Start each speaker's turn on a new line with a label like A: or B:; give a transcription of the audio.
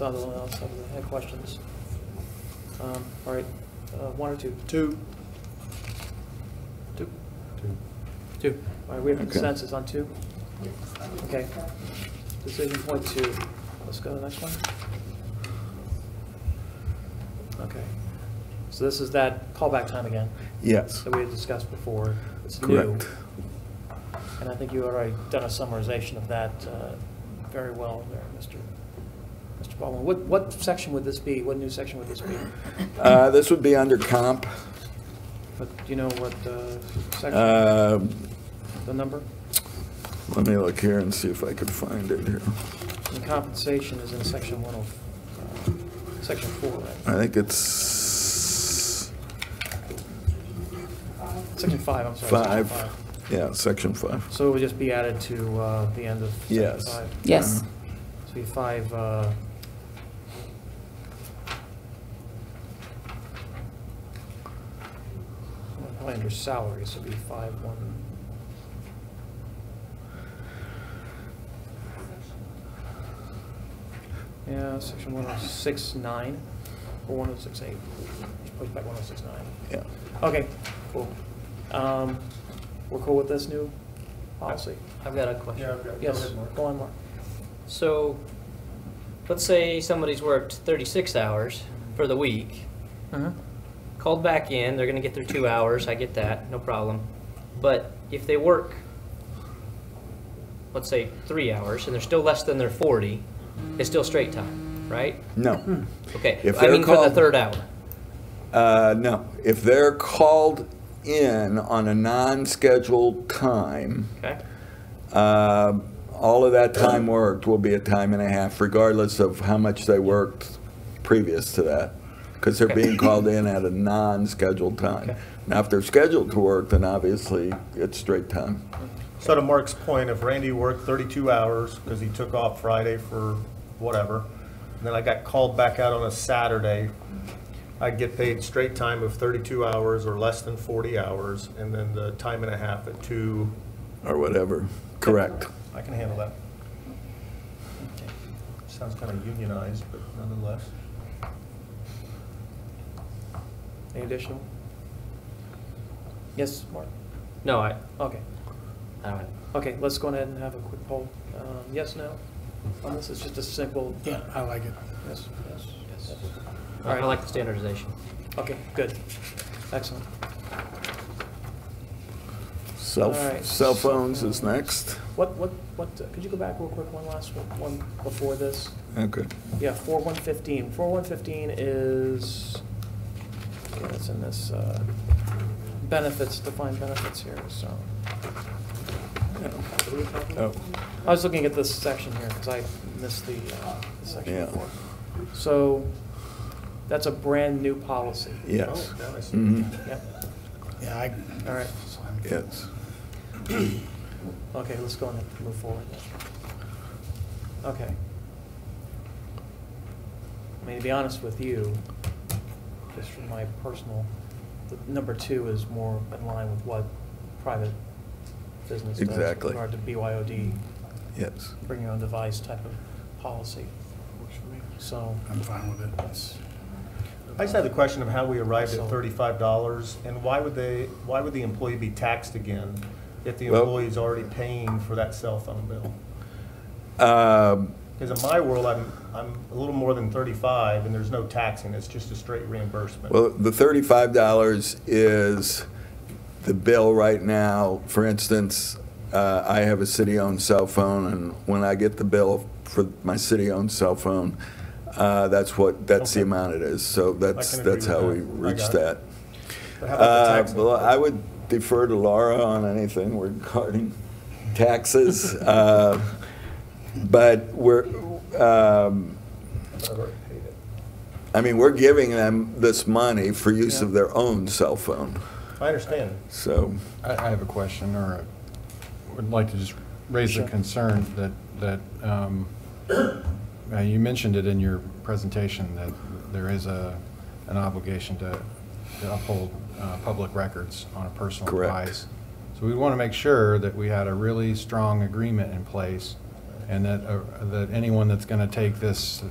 A: Does anyone else have any questions? Um, All right, uh, one or two?
B: Two.
A: Two. Two. All right, we have
C: Okay.
A: consensus on two? Okay. Decision point two. Let's go to the next one. Okay. So this is that callback time again
C: Yes,
A: that we had discussed before. It's new.
C: correct.
A: And I think you already done a summarization of that uh, very well there, Mr. Mr. Baldwin. What, what section would this be? What new section would this be?
C: Uh, This would be under comp,
A: But do you know what uh, section,
C: Uh,
A: the number?
C: let me look here and see if I could find it here.
A: And compensation is in section one of, uh, section four,
C: I
A: right?
C: think it's
A: Section five, I'm sorry. section
C: five, yeah, section five.
A: So it would just be added to uh, the end of section
C: Yes. Uh-huh.
A: five?
D: Yes.
A: So you five, uh, probably under salaries, it'd be five, one. Yeah, section one oh six nine, or one oh six eight, push back one oh six nine.
C: Yeah.
A: Okay, cool. Um, we're cool with this new policy?
E: I've got a question.
B: Yeah, I've got- go
A: Yes,
B: ahead, Mark.
A: go on, Mark.
E: So, let's say somebody's worked 36 hours for the week, called back in, they're gonna get their two hours, I get that, no problem. But if they work, let's say, three hours, and they're still less than their 40, it's still straight time, right?
A: Hmm.
C: No,
E: Okay,
C: If
E: I
C: they're
E: mean for the
C: called-
E: third hour.
C: Uh, no. If they're called in on a non-scheduled time,
E: Okay,
C: uh, all of that time worked will be a time and a half, regardless of how much they worked previous to that, because they're
E: Okay.
C: being called in at a non-scheduled time.
E: Okay.
C: Now, if they're scheduled to work, then obviously it's straight time.
B: So to Mark's point, if Randy worked 32 hours because he took off Friday for whatever, and then I got called back out on a Saturday, I'd get paid straight time of 32 hours or less than 40 hours, and then the time and a half at two.
C: Or whatever. Correct.
B: I can handle that. Sounds kind of unionized, but nonetheless.
A: Any additional? Yes, Mark?
E: no, I,
A: Okay,
E: I don't,
A: okay, let's go ahead and have a quick poll. Um, Yes, no? On this, it's just a simple,
B: Yeah, I like it.
A: yes, yes, yes.
E: I I like the standardization.
A: Okay, good. Excellent.
C: Cell,
A: All right.
C: cell phones is next.
A: What, what, what, uh, could you go back real quick, one last one, one before this?
C: Okay.
A: Yeah, four one fifteen. Four one fifteen is, yeah, it's in this, uh, benefits, defined benefits here, so.
C: Oh,
A: I was looking at this section here, because I missed the, uh, the section
C: Yeah.
A: before. So, that's a brand-new policy.
C: yes.
B: Oh, now I see.
C: Mhm.
A: Yep,
F: Yeah, I,
A: all right,
C: Yes.
A: okay, let's go on and move forward then. Okay. I mean, to be honest with you, just from my personal, the number two is more in line with what private business does.
C: Exactly.
A: With regard to BYOD,
C: Yes.
A: bring your own device type of policy, so.
F: I'm fine with it. It's-
B: I just had the question of how we arrived
A: So-
B: at thirty-five dollars, and why would they, why would the employee be taxed again if the
C: Well-
B: employee's already paying for that cell phone bill?
C: Um,
B: Because in my world, I'm, I'm a little more than thirty-five, and there's no taxing, it's just a straight reimbursement.
C: Well, the thirty-five dollars is the bill right now. For instance, uh, I have a city-owned cell phone, and when I get the bill for my city-owned cell phone, uh, that's what, that's the
B: Okay.
C: amount it is. So that's,
B: agree
C: that's
B: with
C: how
B: that.
C: we
B: I
C: reached
B: got
C: that.
B: it. But how about the
C: Uh,
B: taxing?
C: Well, I would defer to Laura on anything regarding taxes. Uh, But we're, um,
B: I've already paid it.
C: I mean, we're giving them this money for use
A: Yeah.
C: of their own cell phone,
B: I understand.
C: so.
G: I, I have a question, or a- would like to just raise the
A: Sure.
G: concern that, that, um, uh, you mentioned it in your presentation, that there is a, an obligation to to uphold uh, public records on a personal
C: Correct.
G: device. So we want to make sure that we had a really strong agreement in place, and that, uh, that anyone that's going to take this